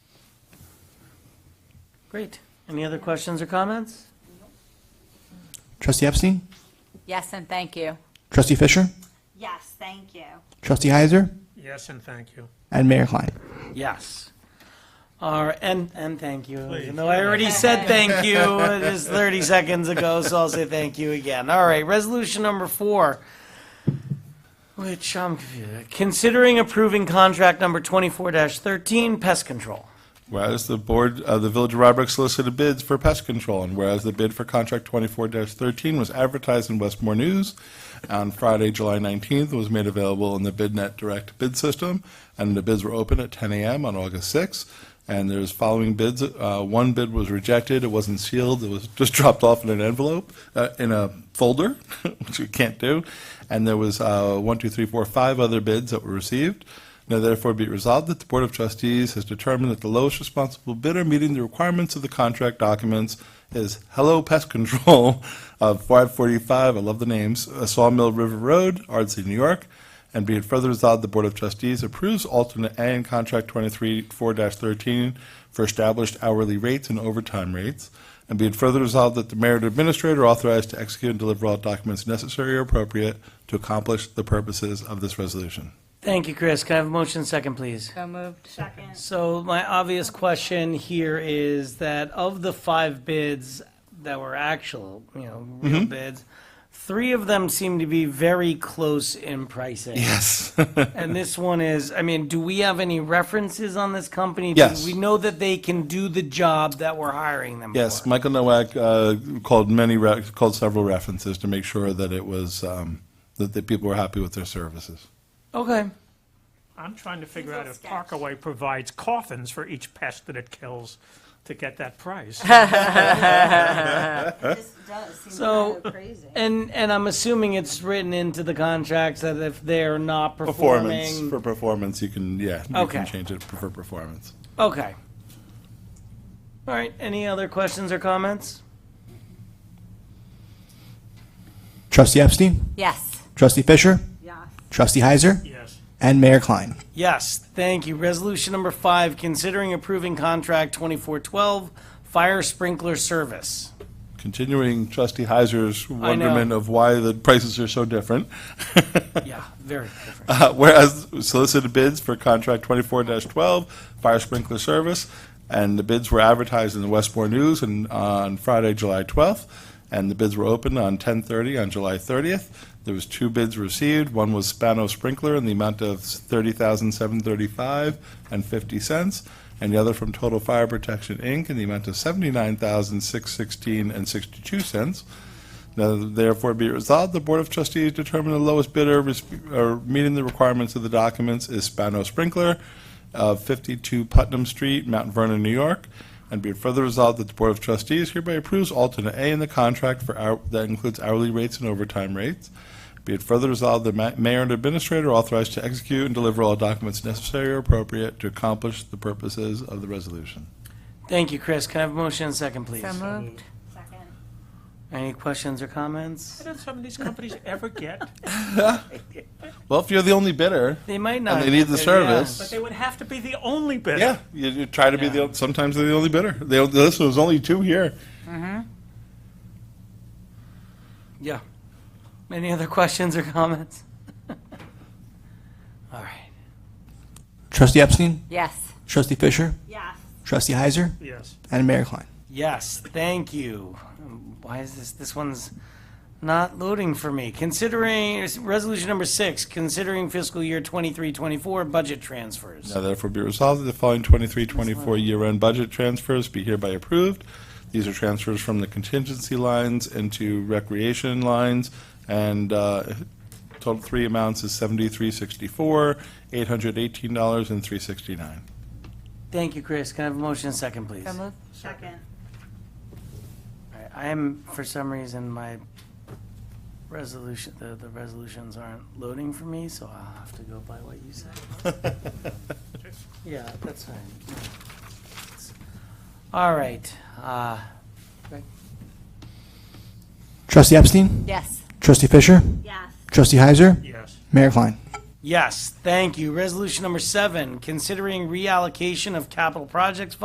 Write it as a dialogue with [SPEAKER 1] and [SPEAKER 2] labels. [SPEAKER 1] Great. Any other questions or comments?
[SPEAKER 2] Trustee Epstein?
[SPEAKER 3] Yes, and thank you.
[SPEAKER 2] Trustee Fisher?
[SPEAKER 4] Yes, thank you.
[SPEAKER 2] Trustee Heiser?
[SPEAKER 5] Yes, and thank you.
[SPEAKER 2] And Mayor Klein.
[SPEAKER 1] Yes. Or, and, and thank you.
[SPEAKER 5] Please.
[SPEAKER 1] Even though I already said thank you uh, just 30 seconds ago, so I'll say thank you again. All right, resolution number four, which I'm confused. Considering approving contract number 24-13, pest control.
[SPEAKER 6] Whereas the Board of the Village of Rybrook solicited bids for pest control, and whereas the bid for contract twenty-four thirteen was advertised in Westmore News on Friday, July nineteenth, and was made available in the BidNet Direct Bid System, and the bids were open at ten AM on August sixth. And there's following bids, uh, one bid was rejected, it wasn't sealed, it was just dropped off in an envelope, uh, in a folder, which we can't do. And there was, uh, one, two, three, four, five other bids that were received. Now therefore be it resolved that the Board of Trustees has determined that the lowest responsible bidder meeting the requirements of the contract documents is Hello Pest Control of 545, I love the names, uh, Sawmill River Road, Ardsley, New York. And be it further resolved, the Board of Trustees approves alternate A in Contract 23-4-13 for established hourly rates and overtime rates. And be it further resolved that the mayor and administrator are authorized to execute and deliver all documents necessary or appropriate to accomplish the purposes of this resolution.
[SPEAKER 1] Thank you, Chris. Can I have a motion second, please?
[SPEAKER 3] So moved.
[SPEAKER 4] Second.
[SPEAKER 1] So my obvious question here is that of the five bids that were actual, you know,
[SPEAKER 6] Mm-hmm.
[SPEAKER 1] real bids, three of them seem to be very close in pricing.
[SPEAKER 6] Yes.
[SPEAKER 1] And this one is, I mean, do we have any references on this company?
[SPEAKER 6] Yes.
[SPEAKER 1] Do we know that they can do the job that we're hiring them for?
[SPEAKER 6] Yes, Michael Nowak uh, called many, re- called several references to make sure that it was, um, that the people were happy with their services.
[SPEAKER 1] Okay.
[SPEAKER 5] I'm trying to figure out
[SPEAKER 4] Little
[SPEAKER 5] if
[SPEAKER 4] sketch.
[SPEAKER 5] Parkaway provides coffins for each pest that it kills to get that price.
[SPEAKER 4] This does seem
[SPEAKER 1] So-
[SPEAKER 4] kind of crazy.
[SPEAKER 1] And, and I'm assuming it's written into the contracts that if they're not
[SPEAKER 6] Performance,
[SPEAKER 1] performing.
[SPEAKER 6] for performance, you can, yeah, you
[SPEAKER 1] Okay.
[SPEAKER 6] can change it for performance.
[SPEAKER 1] Okay. All right, any other questions or comments?
[SPEAKER 2] Trustee Epstein?
[SPEAKER 3] Yes,
[SPEAKER 2] Trustee Fisher?
[SPEAKER 4] Yes,
[SPEAKER 2] Trustee Heiser?
[SPEAKER 5] Yes,
[SPEAKER 2] And Mayor Klein.
[SPEAKER 1] Yes, thank you. Resolution number five, considering approving contract 2412, fire sprinkler service.
[SPEAKER 6] Continuing trustee Heiser's
[SPEAKER 1] know.
[SPEAKER 6] wonderment of why the prices are so different.
[SPEAKER 1] Yeah, very different.
[SPEAKER 6] Uh, Whereas solicited bids for contract twenty-four twelve, fire sprinkler service, and the bids were advertised in the Westmore News and on Friday, July twelfth, and the bids were open on ten thirty on July thirtieth. There was two bids received. One was Spano Sprinkler in the amount of thirty thousand seven thirty-five and fifty cents, and the other from Total Fire Protection Inc. in the amount of seventy-nine thousand six sixteen and sixty-two cents. Now therefore be it resolved, the Board of Trustees determine the lowest bidder res- or meeting the requirements of the documents is Spano Sprinkler of 52 Putnam Street, Mount Vernon, New York. And be it further resolved that the Board of Trustees hereby approves alternate A in the contract for, hour- that includes hourly rates and overtime rates. Be it further resolved, the ma- mayor and administrator are authorized to execute and deliver all documents necessary or appropriate to accomplish the purposes of the resolution.
[SPEAKER 1] Thank you, Chris. Can I have a motion and second, please?
[SPEAKER 3] so moved.
[SPEAKER 4] second.
[SPEAKER 1] Any questions or comments?
[SPEAKER 5] did some of these companies ever get?
[SPEAKER 6] Well, if you're the only bidder
[SPEAKER 1] They might not.
[SPEAKER 6] and they need the
[SPEAKER 1] Yeah.
[SPEAKER 6] service.
[SPEAKER 5] But they would have to be the only bidder.
[SPEAKER 6] Yeah, you, you try to be the. Sometimes they're the only bidder. They, this was only two here.
[SPEAKER 1] Yeah. Any other questions or comments? All right.
[SPEAKER 2] Trustee Epstein?
[SPEAKER 3] Yes,
[SPEAKER 2] Trustee Fisher?
[SPEAKER 4] Yes,
[SPEAKER 2] Trustee Heiser?
[SPEAKER 5] Yes,
[SPEAKER 2] And Mayor Klein.
[SPEAKER 1] Yes, thank you. Um, Why is this, this one's not loading for me. Considering, resolution number six, considering fiscal year 23, 24 budget transfers.
[SPEAKER 6] Now therefore be resolved that the following 23-24 year-end budget transfers be hereby approved. These are transfers from the contingency lines into recreation lines, and uh, total three amounts is seventy-three sixty-four, eight hundred eighteen dollars and three sixty-nine.
[SPEAKER 1] Thank you, Chris. Can I have a motion and second, please?
[SPEAKER 3] so moved.
[SPEAKER 4] second.
[SPEAKER 1] All right, I am, for some reason, my resolution, the, the resolutions aren't loading for me, so I'll have to go by what you said. Yeah, that's fine. All right, uh,
[SPEAKER 2] Trustee Epstein?
[SPEAKER 3] Yes,
[SPEAKER 2] Trustee Fisher?
[SPEAKER 4] Yes,
[SPEAKER 2] Trustee Heiser?
[SPEAKER 5] yes,
[SPEAKER 2] Mayor Klein.
[SPEAKER 1] yes, thank you. Resolution number seven, considering reallocation of capital projects